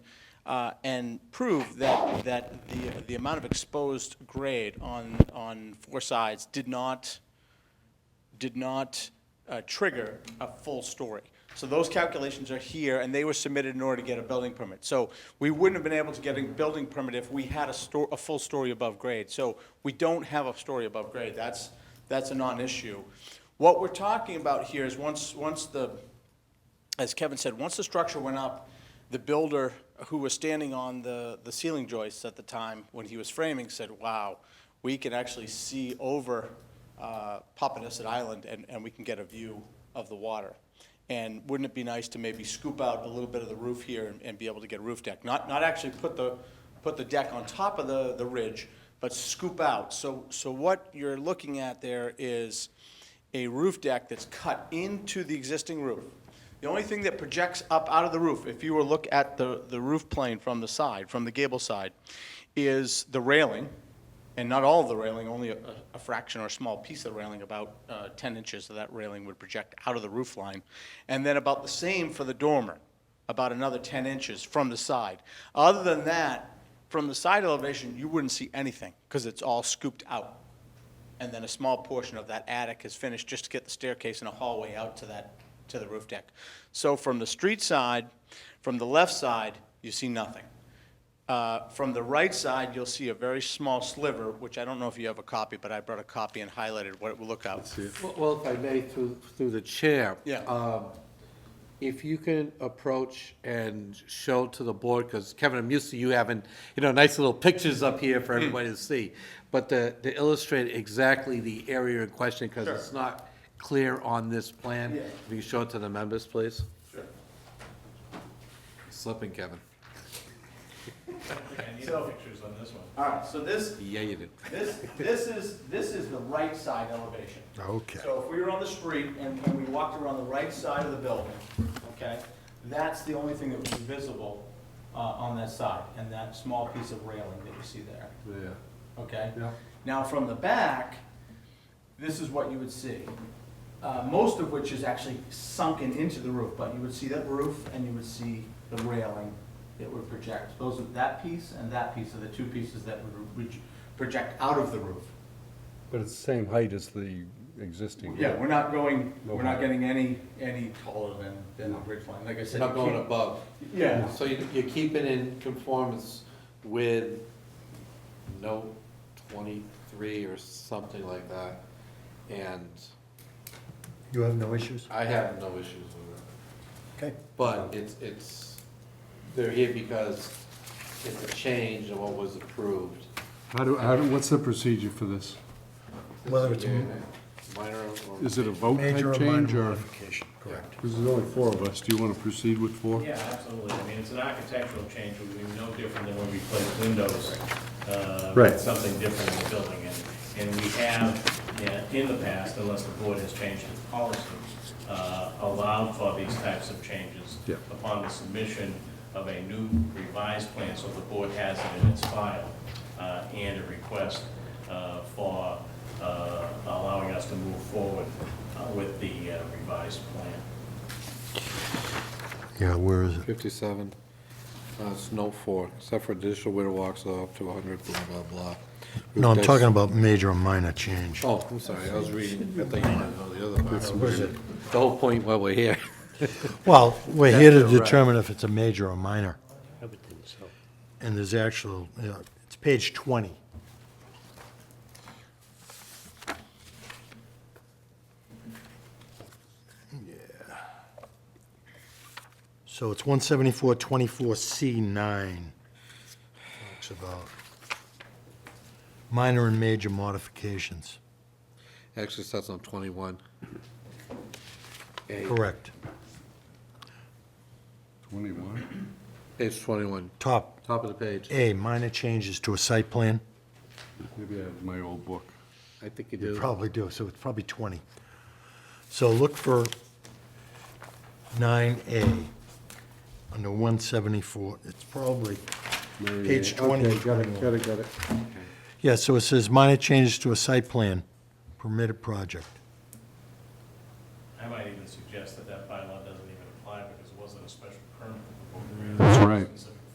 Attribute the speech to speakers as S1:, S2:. S1: uh, and prove that, that the, the amount of exposed grade on, on four sides did not, did not uh, trigger a full story. So those calculations are here, and they were submitted in order to get a building permit. So we wouldn't have been able to get a building permit if we had a sto, a full story above grade. So we don't have a story above grade, that's, that's a non-issue. What we're talking about here is once, once the, as Kevin said, once the structure went up, the builder who was standing on the, the ceiling joists at the time when he was framing said, wow, we can actually see over uh, Papaneset Island and, and we can get a view of the water. And wouldn't it be nice to maybe scoop out a little bit of the roof here and, and be able to get a roof deck? Not, not actually put the, put the deck on top of the, the ridge, but scoop out. So, so what you're looking at there is a roof deck that's cut into the existing roof. The only thing that projects up out of the roof, if you were to look at the, the roof plane from the side, from the gable side, is the railing, and not all of the railing, only a, a fraction or a small piece of the railing, about uh, 10 inches of that railing would project out of the roof line. And then about the same for the dormer, about another 10 inches from the side. Other than that, from the side elevation, you wouldn't see anything, because it's all scooped out and then a small portion of that attic is finished just to get the staircase and a hallway out to that, to the roof deck. So from the street side, from the left side, you see nothing. Uh, From the right side, you'll see a very small sliver, which I don't know if you have a copy, but I brought a copy and highlighted what it will look out.
S2: Well- Well, if I may, through, through the chair.
S1: Yeah.
S2: um, If you can approach and show to the board, because Kevin, I'm used to you having, you know, nice little pictures up here
S1: Hmm.
S2: for everybody to see, but to, to illustrate exactly the area in question, because it's not clear on this plan.
S1: Yeah.
S2: If you could show it to the members, please. Sure. Slipping, Kevin.
S1: pictures on this one. All right, so this,
S2: Yeah, you did.
S1: This, this is, this is the right side elevation.
S3: Okay.
S1: So if we were on the street and, and we walked around the right side of the building, okay, that's the only thing that would be visible, uh, on that side, and that small piece of railing that you see there,
S2: Yeah.
S1: okay?
S2: Yeah.
S1: Now, from the back, this is what you would see, uh, most of which is actually sunken into the roof, but you would see that roof and you would see the railing that would project. Those are, that piece and that piece are the two pieces that would, would project out of the roof.
S4: But it's the same height as the existing.
S1: Yeah, we're not going,
S4: No.
S1: we're not getting any, any taller than, than the bridge line, like I said.
S2: Not
S1: you
S2: going
S1: keep-
S2: above.
S1: Yeah.
S2: So you- you're keeping in conformance with note twenty-three or something like that, and
S3: You have no issues?
S2: I have no issues with it.
S3: Okay.
S2: But it's, it's, they're here because it's a change of what was approved.
S4: How do, how do, what's the procedure for this?
S3: Whether it's a
S2: Minor or.
S4: Is it a vote
S3: major
S4: type
S3: or
S4: change
S3: minor
S4: or?
S3: modification, correct.
S4: Because there's only four of us. Do you want to proceed with four?
S5: Yeah, absolutely. I mean, it's an architectural change, it would be no different than when we placed windows. uh,
S4: Right.
S5: Something different in the building, and, and we have, yeah, in the past, unless the board has changed its policies, uh, allowed for these types of changes
S4: Yeah.
S5: upon the submission of a new revised plan, so the board has it in its file, uh, and a request uh, for uh, allowing us to move forward uh, with the uh, revised plan.
S3: Yeah, where is it?
S2: Fifty-seven, uh, it's note four, except for additional winter walks up to hundred, blah, blah, blah.
S3: No,
S2: Roof
S3: I'm
S2: decks-
S3: talking about major or minor change.
S2: Oh, I'm sorry, I was reading, I thought you wanted to know the other part.
S3: was it?
S2: The whole point while we're here.
S3: Well, we're here to
S2: That's correct.
S3: determine if it's a major or minor,
S6: I would think so.
S3: and there's actual, you know, it's page 20. Yeah. So it's 174-24C9. Talks about minor and major modifications.
S2: Actually, it starts on twenty-one. A,
S3: Correct.
S4: Twenty-one?
S2: Page twenty-one,
S3: Top
S2: top of the page.
S3: A, minor changes to a site plan.
S4: Maybe I have my old book.
S2: I think you
S3: You
S2: do.
S3: probably do, so it's probably 20. So look for 9A under 174. It's probably, Page 20.
S4: Okay, got it, got it, got it.
S3: yeah, so it says minor changes to a site plan, permitted project.
S5: I might even suggest that that bylaw doesn't even apply because it wasn't a special permit.
S4: That's right.